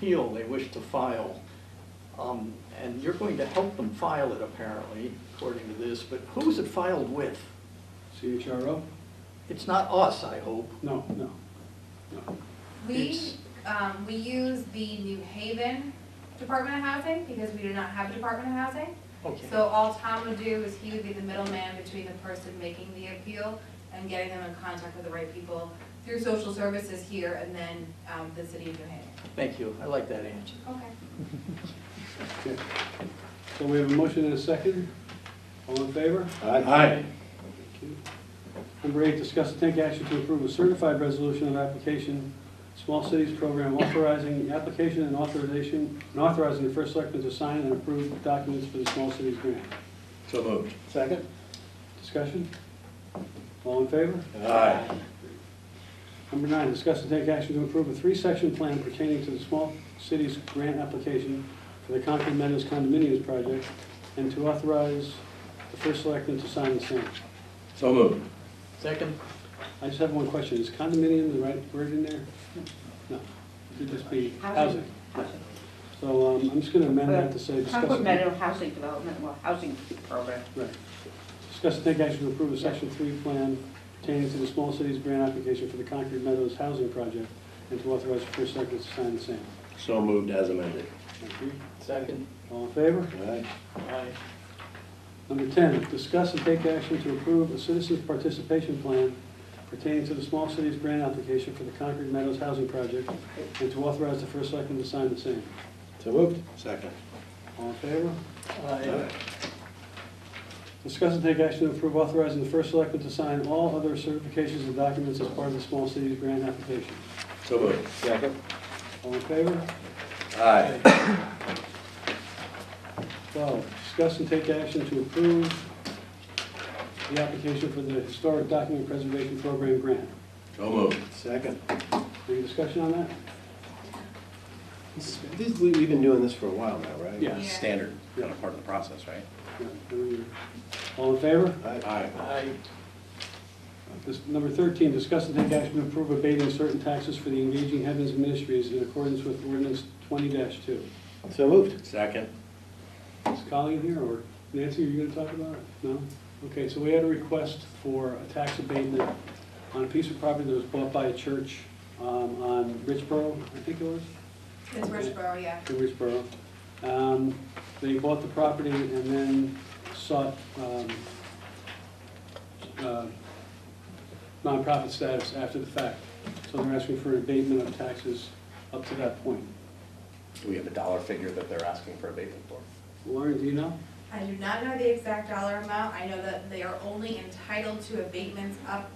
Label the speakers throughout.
Speaker 1: appeal they wish to file. Um, And you're going to help them file it apparently, according to this, but who's it filed with?
Speaker 2: CHRO?
Speaker 1: It's not us, I hope.
Speaker 2: No, no, no.
Speaker 3: We,
Speaker 1: It's-
Speaker 3: um, we use the New Haven Department of Housing because we do not have a Department of Housing. So all Tom would do is he would be the middleman between the person making the appeal and getting them in contact with the right people through social services here and then, um, the city of New Haven.
Speaker 1: Thank you, I like that answer.
Speaker 3: Okay.
Speaker 2: Okay. So we have a motion and a second. All in favor?
Speaker 4: Aye.
Speaker 2: Thank you. Number eight, discuss and take action to approve a certified resolution of application, small cities program authorizing the application and authorization, and authorizing the first selectman to sign and approve documents for the small cities grant.
Speaker 4: So moved.
Speaker 5: Second?
Speaker 2: Discussion? All in favor?
Speaker 4: Aye.
Speaker 2: Number nine, discuss and take action to approve a three-section plan pertaining to the small cities grant application for the Concord Meadows condominiums project, and to authorize the first selectman to sign the same.
Speaker 4: So moved.
Speaker 1: Second?
Speaker 2: I just have one question, is condominium the right word in there? No, it could just be housing. So um, I'm just gonna amend that to say discuss.
Speaker 6: Concord Meadow Housing Development, well, housing program.
Speaker 2: Right. Discuss and take action to approve a section three plan pertaining to the small cities grant application for the Concord Meadows housing project, and to authorize the first selectman to sign the same.
Speaker 4: So moved as amended.
Speaker 2: Thank you.
Speaker 1: Second.
Speaker 2: All in favor?
Speaker 4: Aye.
Speaker 1: Aye.
Speaker 2: Number 10, discuss and take action to approve a citizens' participation plan pertaining to the small cities grant application for the Concord Meadows Housing Project and to authorize the first selectman to sign the same.
Speaker 4: So moved. Second.
Speaker 2: All in favor?
Speaker 1: Aye.
Speaker 2: Discuss and take action to approve authorizing the first selectman to sign all other certifications and documents as part of the small cities grant application.
Speaker 4: So moved. Second.
Speaker 2: All in favor?
Speaker 4: Aye.
Speaker 2: 12, discuss and take action to approve the application for the Historic Document Preservation Program grant.
Speaker 4: So moved. Second.
Speaker 2: Any discussion on that?
Speaker 5: This- this- we- We've been doing this for a while now, right?
Speaker 2: Yeah.
Speaker 3: Yeah.
Speaker 7: standard, kind of part of the process, right?
Speaker 2: No. All in favor?
Speaker 4: Aye.
Speaker 1: Aye.
Speaker 2: This- Number 13, discuss and take action to approve abating certain taxes for the Engaging Heavens Ministries in accordance with ordinance 20-2.
Speaker 5: So moved.
Speaker 4: Second.
Speaker 2: Is Colleen here, or Nancy, are you going to talk about it? No? Okay, so we had a request for a tax abatement on a piece of property that was bought by a church um, on Richboro, I think it was?
Speaker 3: It's Richboro, yeah.
Speaker 2: in Richboro. Um, They bought the property and then sought um, uh, nonprofit status after the fact. So they're asking for an abatement of taxes up to that point.
Speaker 7: Do we have a dollar figure that they're asking for abatement for?
Speaker 2: Lauren, do you know?
Speaker 3: I do not know the exact dollar amount. I know that they are only entitled to abatements up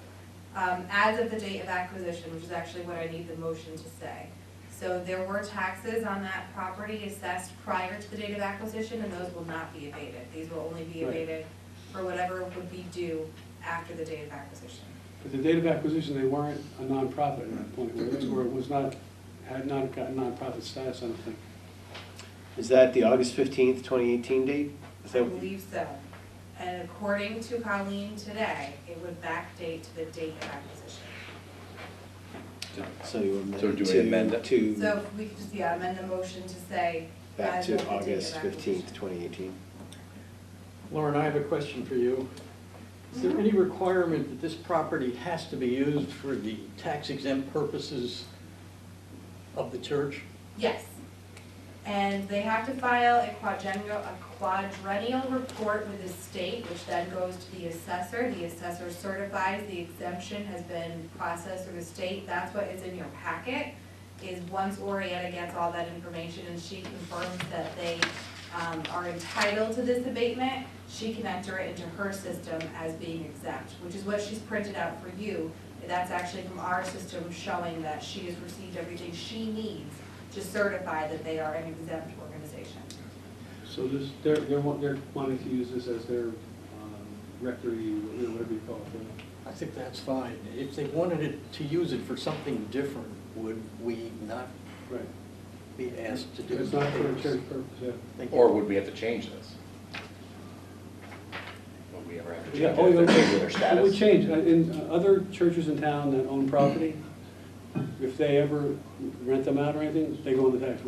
Speaker 3: um, as of the date of acquisition, which is actually what I need the motion to say. So there were taxes on that property assessed prior to the date of acquisition, and those will not be abated. These will only be
Speaker 2: Right.
Speaker 3: abated for whatever would be due after the date of acquisition.
Speaker 2: At the date of acquisition, they weren't a nonprofit at that point, were they? or it was not, had not gotten nonprofit status, I don't think.
Speaker 5: Is that the August fifteenth, twenty eighteen date? Is
Speaker 3: I
Speaker 5: that-
Speaker 3: believe so. And according to Colleen today, it would backdate to the date of acquisition.
Speaker 5: So you amend
Speaker 7: So do we amend
Speaker 5: to,
Speaker 7: it?
Speaker 3: So
Speaker 5: to,
Speaker 3: if we could just, yeah, amend the motion to say.
Speaker 5: back
Speaker 3: as of the
Speaker 5: to
Speaker 3: date of
Speaker 5: August
Speaker 3: acquisition.
Speaker 5: fifteenth, twenty eighteen?
Speaker 1: Lauren, I have a question for you. Is there any requirement that this property has to be used for the tax exempt purposes of the church?
Speaker 3: Yes. And they have to file a quadrennial, a quadrennial report with the state, which then goes to the assessor. The assessor certifies the exemption has been processed through the state. That's what is in your packet, is once Orietta gets all that information and she confirms that they um, are entitled to this abatement, she can enter it into her system as being exempt, which is what she's printed out for you. That's actually from our system showing that she has received everything she needs to certify that they are an exempt organization.
Speaker 2: So this, they're, they're wa- they're wanting to use this as their um, rectory, you know, whatever you call it. uh,
Speaker 1: I think that's fine. If they wanted it, to use it for something different, would we not
Speaker 2: Right.
Speaker 1: be asked to do?
Speaker 2: It's not for a
Speaker 1: this?
Speaker 2: church purpose, yeah.
Speaker 1: Thank you.
Speaker 7: Or would we have to change this? Would we ever have to change
Speaker 2: Yeah,
Speaker 7: it?
Speaker 2: oh, yeah,
Speaker 7: if they're changing Their
Speaker 2: It would
Speaker 7: status?
Speaker 2: change, Uh, in uh, other churches in town that own property, if they ever rent them out or anything, they go on the tax